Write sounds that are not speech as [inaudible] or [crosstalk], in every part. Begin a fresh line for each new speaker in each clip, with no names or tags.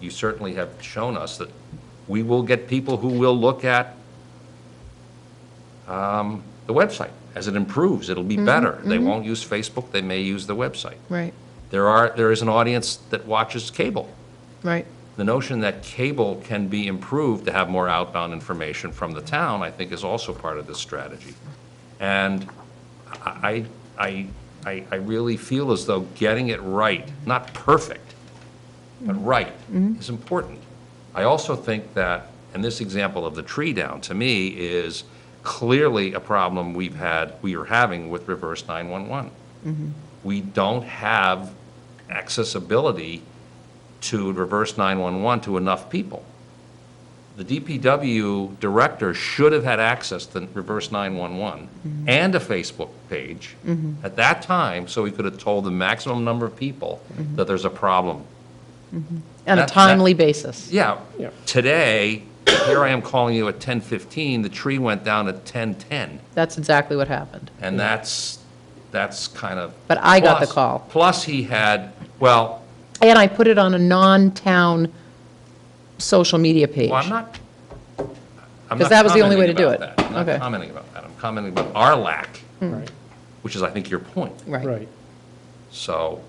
you certainly have shown us that we will get people who will look at um, the website. As it improves, it'll be better. They won't use Facebook, they may use the website.
Right,
There are, there is an audience that watches cable.
right.
The notion that cable can be improved to have more outbound information from the town, I think, is also part of this strategy. And I, I, I, I really feel as though getting it right, not perfect, but right, is important. I also think that, and this example of the tree down, to me, is clearly a problem we've had, we are having with reverse 911. We don't have accessibility to reverse 911 to enough people. The DPW director should have had access to reverse 911
Mm-hmm.
and a Facebook page at that time, so he could have told the maximum number of people
Mm-hmm.
that there's a problem.
On a
That- that-
timely basis.
Yeah, today, here I am calling you at 10:15, the tree went down at 10:10.
That's exactly what happened.
And that's, that's kind of.
But I got the
plus-
call.
Plus, he had, well,
And I put it on a non-town social media page.
Well, I'm not. I'm
'Cause
not
that was the only way to
commenting
do
about
it.
that. I'm
Okay.
not commenting about that. I'm commenting about our lack,
Mm.
Right,
which is, I think, your point.
Right,
right.
So,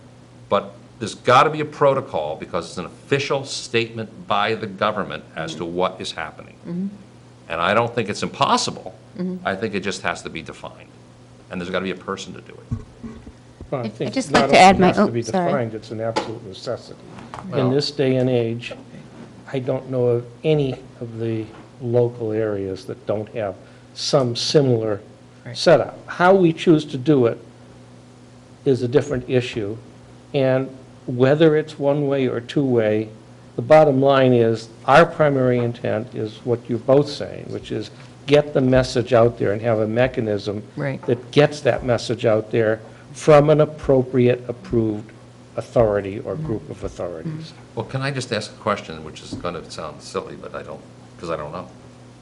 but there's got to be a protocol because it's an official statement by the government as to what is happening.
Mm-hmm.
And I don't think it's impossible. I think it just has to be defined. And there's got to be a person to do it.
Well, I
I'd
think
just
not
like to
only
add my-
has
oh,
to be
sorry.
defined, it's an absolute necessity.
Well-
In this day and age, I don't know of any of the local areas that don't have some similar setup. How we choose to do it is a different issue, and whether it's one-way or two-way, the bottom line is, our primary intent is what you're both saying, which is get the message out there and have a mechanism
Right.
that gets that message out there from an appropriate approved authority or group of
Mm-hmm.
authorities.
Well, can I just ask a question, which is going to sound silly, but I don't, because I don't know.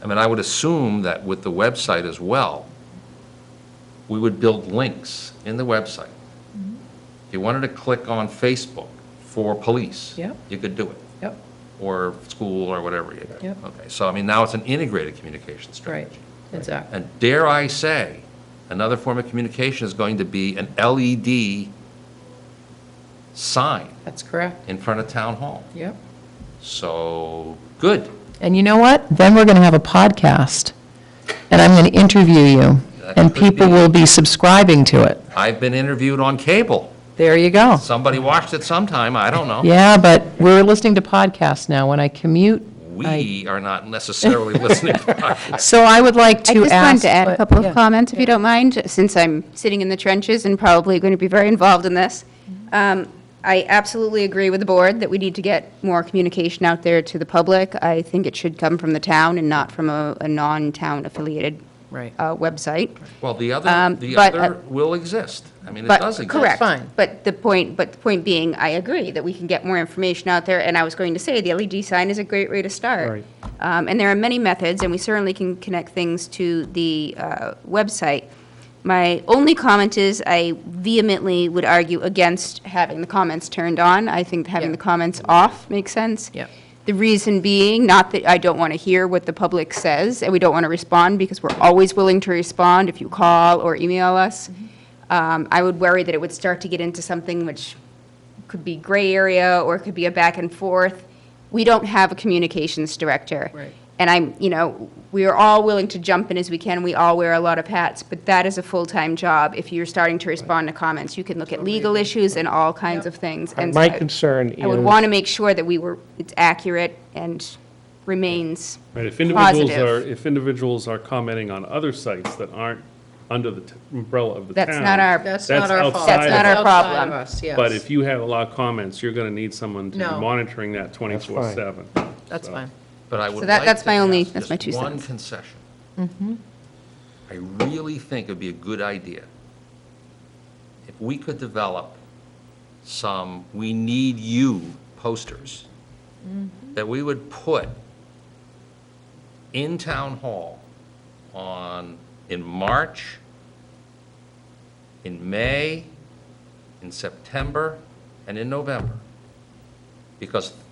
I mean, I would assume that with the website as well, we would build links in the website.
Mm-hmm.
If you wanted to click on Facebook for police.
Yep.
You could do it,
yep,
or school, or whatever. you-
Yep.
Okay, so I mean, now it's an integrated communication
right,
strategy.
exactly.
And dare I say, another form of communication is going to be an LED sign
That's correct,
in front of town hall.
yep.
So, good.
And you know what? Then we're going to have a podcast, and I'm going to interview you,
That
and
could
people
be.
will be subscribing to it.
I've been interviewed on cable.
There you go.
Somebody watched it sometime, I don't know.
Yeah, but we're listening to podcasts now. When I commute, I,
We are not necessarily [laughs]
[laughs]
listening.
so I would like
I
to ask.
just wanted to add a
what-
couple
yeah.
of comments, if you don't mind, since I'm sitting in the trenches and probably going to be very involved in this. Um, I absolutely agree with the board that we need to get more communication out there to the public. I think it should come from the town and not from a a non-town affiliated
Right.
uh, website.
Well, the other,
Um,
the
but, uh,
other will exist. I mean, it
But-
does exist.
Correct.
Fine.
But the point, but the point being, I agree that we can get more information out there, and I was going to say, the LED sign is a great way to start.
Right.
Um, And there are many methods, and we certainly can connect things to the uh, website. My only comment is, I vehemently would argue against having the comments turned on. I think having
Yeah.
the comments off makes sense.
Yeah.
The reason being, not that I don't want to hear what the public says, and we don't want to respond, because we're always willing to respond if you call or email us. Um, I would worry that it would start to get into something which could be gray area, or it could be a back and forth. We don't have a communications director.
Right.
And I'm, you know, we are all willing to jump in as we can, we all wear a lot of hats, but that is a full-time job. If you're starting to respond to comments, you can look at legal issues and all kinds of things. And
My
so I-
concern
I would
is-
want to make sure that we were, it's accurate and remains
Right, if individuals
Positive.
are, if individuals are commenting on other sites that aren't under the t- umbrella of the town.
That's not our-
That's not our fault.
outside
That's not
of
our
it.
outside
problem.
of us, yes.
But if you have a lot of comments, you're gonna need someone to be
No.
monitoring that twenty-four seven.
That's fine.
But I would
So that-
like
that's
to
my only-
ask
that's my
just
two
one
cents.
concession. I really think it'd be a good idea if we could develop some "We Need You" posters that we would put in Town Hall on, in March, in May, in September, and in November. Because